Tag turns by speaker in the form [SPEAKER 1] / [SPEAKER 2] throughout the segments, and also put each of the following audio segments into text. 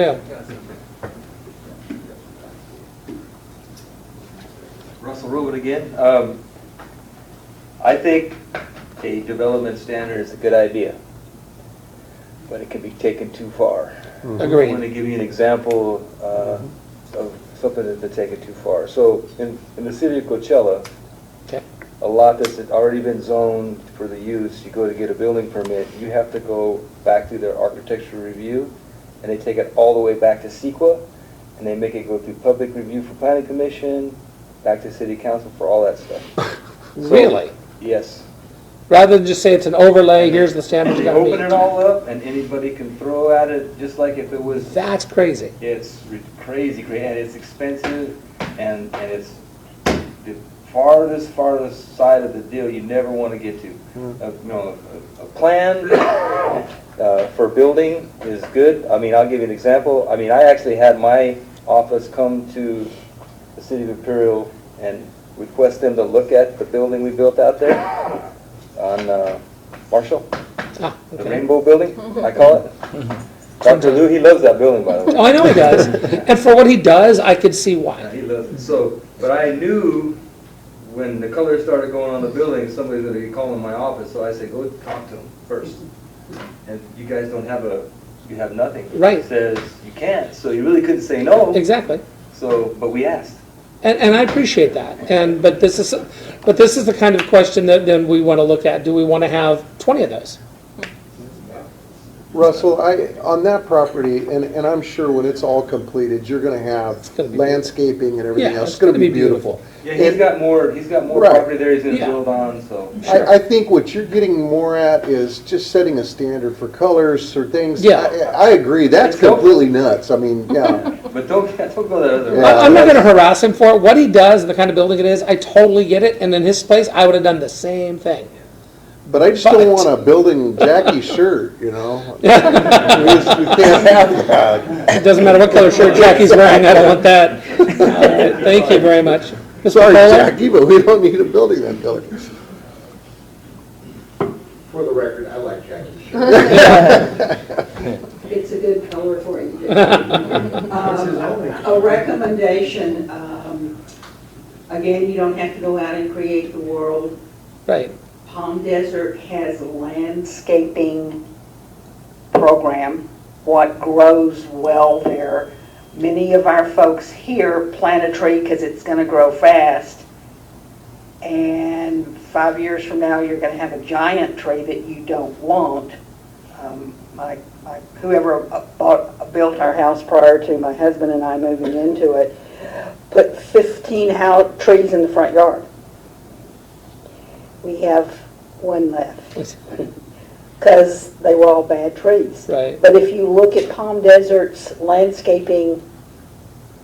[SPEAKER 1] it up.
[SPEAKER 2] Russell Rowan again. Um, I think a development standard is a good idea, but it can be taken too far.
[SPEAKER 1] Agreed.
[SPEAKER 2] I want to give you an example uh, of something that's been taken too far. So in, in the city of Coachella,
[SPEAKER 1] Okay.
[SPEAKER 2] a lot that's already been zoned for the use, you go to get a building permit, you have to go back through their architectural review, and they take it all the way back to CEQA, and they make it go through public review for planning commission, back to city council for all that stuff. So-
[SPEAKER 1] Really?
[SPEAKER 2] Yes.
[SPEAKER 1] Rather than just say it's an overlay, here's the standard you
[SPEAKER 2] They
[SPEAKER 1] gotta
[SPEAKER 2] open it
[SPEAKER 1] meet.
[SPEAKER 2] all up, and anybody can throw at it, just like if it was
[SPEAKER 1] That's crazy.
[SPEAKER 2] It's re- crazy, crazy, and it's expensive, and, and it's the farthest, farthest side of the deal you never want to get to. A- You know, a, a plan, uh, for building is good, I mean, I'll give you an example, I mean, I actually had my office come to the city of Imperial and request them to look at the building we built out there on, uh, Marshall,
[SPEAKER 1] Ah,
[SPEAKER 2] the
[SPEAKER 1] okay.
[SPEAKER 2] Rainbow Building, I call it. Dr. Lou, he loves that building, by the way.
[SPEAKER 1] Oh, I know he does. And for what he does, I could see
[SPEAKER 2] Yeah,
[SPEAKER 1] why.
[SPEAKER 2] He loves it. So, but I knew when the colors started going on the building, somebody's gonna be calling my office, so I said, go talk to him first. And you guys don't have a, you have nothing.
[SPEAKER 1] Right.
[SPEAKER 2] It Says, you can't, so you really couldn't say no,
[SPEAKER 1] Exactly.
[SPEAKER 2] so, but we asked.
[SPEAKER 1] And, and I appreciate that, and, but this is, but this is the kind of question that then we want to look at, do we want to have 20 of those?
[SPEAKER 3] Russell, I, on that property, and, and I'm sure when it's all completed, you're gonna have
[SPEAKER 1] gonna be-
[SPEAKER 3] landscaping and everything
[SPEAKER 1] Yeah,
[SPEAKER 3] else. It's gonna be beautiful.
[SPEAKER 2] Yeah, he's
[SPEAKER 3] It-
[SPEAKER 2] got more, he's got more
[SPEAKER 3] Right.
[SPEAKER 2] property there he's gonna
[SPEAKER 1] Yeah.
[SPEAKER 2] build on, so.
[SPEAKER 1] Sure.
[SPEAKER 3] I, I think what you're getting more at is just setting a standard for colors or things.
[SPEAKER 1] Yeah.
[SPEAKER 3] I, I agree, that's
[SPEAKER 2] It's helpful.
[SPEAKER 3] completely nuts, I mean, yeah.
[SPEAKER 2] But don't, don't go that other way.
[SPEAKER 3] Yeah.
[SPEAKER 1] I- I'm not going to harass him for it. What he does, and the kind of building it is, I totally get it, and in his place, I would have done the same thing.
[SPEAKER 3] But I just don't
[SPEAKER 1] But-
[SPEAKER 3] want a building Jackie shirt, you know? We just- we can't have that.
[SPEAKER 1] It doesn't matter what color shirt Jackie's wearing, I don't want that. All right, Thank you very much. Mr.
[SPEAKER 3] Sorry,
[SPEAKER 1] Fuller?
[SPEAKER 3] Jackie, but we don't need a building that color.
[SPEAKER 4] For the record, I like Jackie's shirt.
[SPEAKER 5] It's a good color for you. Um, A recommendation, um, again, you don't have to go out and create the world.
[SPEAKER 1] Right,
[SPEAKER 5] Palm Desert has a landscaping program, what grows well there. Many of our folks here plant a tree because it's going to grow fast. And five years from now, you're going to have a giant tree that you don't want. Um, My, my- whoever uh, bought, built our house prior to my husband and I moving into it, put 15 house, trees in the front yard. We have one left, because they were all bad trees.
[SPEAKER 1] right.
[SPEAKER 5] But if you look at Palm Desert's landscaping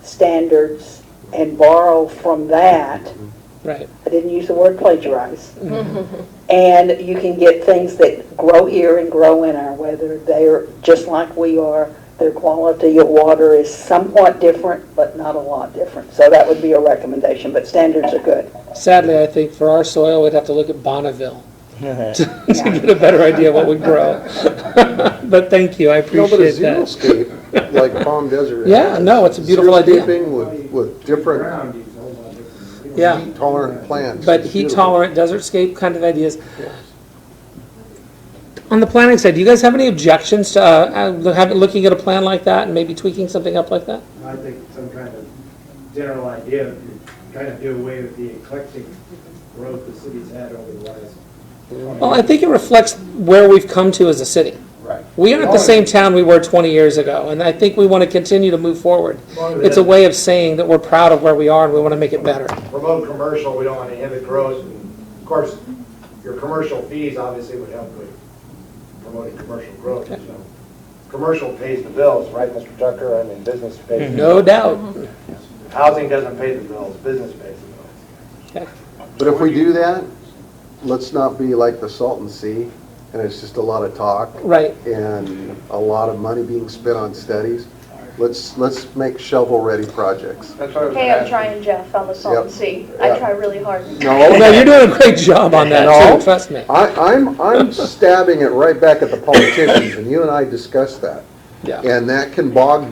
[SPEAKER 5] standards and borrow from that,
[SPEAKER 1] Right,
[SPEAKER 5] I didn't use the word plagiarize. And you can get things that grow here and grow in our weather. They're just like we are. Their quality of water is somewhat different, but not a lot different. So that would be a recommendation, but standards are good.
[SPEAKER 1] sadly, I think for our soil, we'd have to look at Bonneville to to get a better idea of what would grow. But thank you, I
[SPEAKER 3] No, but a
[SPEAKER 1] appreciate that.
[SPEAKER 3] xeriscape, like Palm Desert.
[SPEAKER 1] Yeah,
[SPEAKER 3] has,
[SPEAKER 1] no, it's a beautiful idea.
[SPEAKER 3] xeriscaping with, with different
[SPEAKER 4] Ground is a whole lot different.
[SPEAKER 1] Yeah.
[SPEAKER 3] heat tolerant plants.
[SPEAKER 1] But
[SPEAKER 3] It's
[SPEAKER 1] heat
[SPEAKER 3] beautiful.
[SPEAKER 1] tolerant, desertscape kind of ideas. On the planning side, do you guys have any objections to, uh, uh, have- looking at a plan like that and maybe tweaking something up like that?
[SPEAKER 4] I think some kind of general idea, of trying to do away with the eclectic growth the city's had over the last. 20
[SPEAKER 1] Well, I think it reflects where we've come to as a city.
[SPEAKER 4] Right.
[SPEAKER 1] We aren't
[SPEAKER 6] Oh,
[SPEAKER 1] the same town we were 20 years ago, and I think we want to continue to move forward. It's a way of saying that we're proud of where we are and we want to make it better.
[SPEAKER 6] promote commercial, we don't want to inhibit growth. And Of course, your commercial fees obviously would help with promoting commercial growth, so. Commercial pays the bills, right, Mr. Tucker? I mean, business pays. the
[SPEAKER 1] No
[SPEAKER 6] bills.
[SPEAKER 1] doubt.
[SPEAKER 6] Housing doesn't pay the bills, business pays the bills.
[SPEAKER 3] But if we do that, let's not be like the Salton Sea, and it's just a lot of talk
[SPEAKER 1] Right,
[SPEAKER 3] and a lot of money being spent on studies. Let's, let's make shovel-ready projects.
[SPEAKER 6] That's what I was
[SPEAKER 7] Hey, I'm
[SPEAKER 6] asking.
[SPEAKER 7] trying Jeff, I'm a Salton
[SPEAKER 3] Yep.
[SPEAKER 7] Sea. I
[SPEAKER 3] Yep.
[SPEAKER 7] try really hard.
[SPEAKER 3] No,
[SPEAKER 1] Oh, no, you're doing a great job on that,
[SPEAKER 3] No.
[SPEAKER 1] too, trust me.
[SPEAKER 3] I, I'm, I'm stabbing it right back at the politicians, and you and I discussed that.
[SPEAKER 1] Yeah.
[SPEAKER 3] And that can bog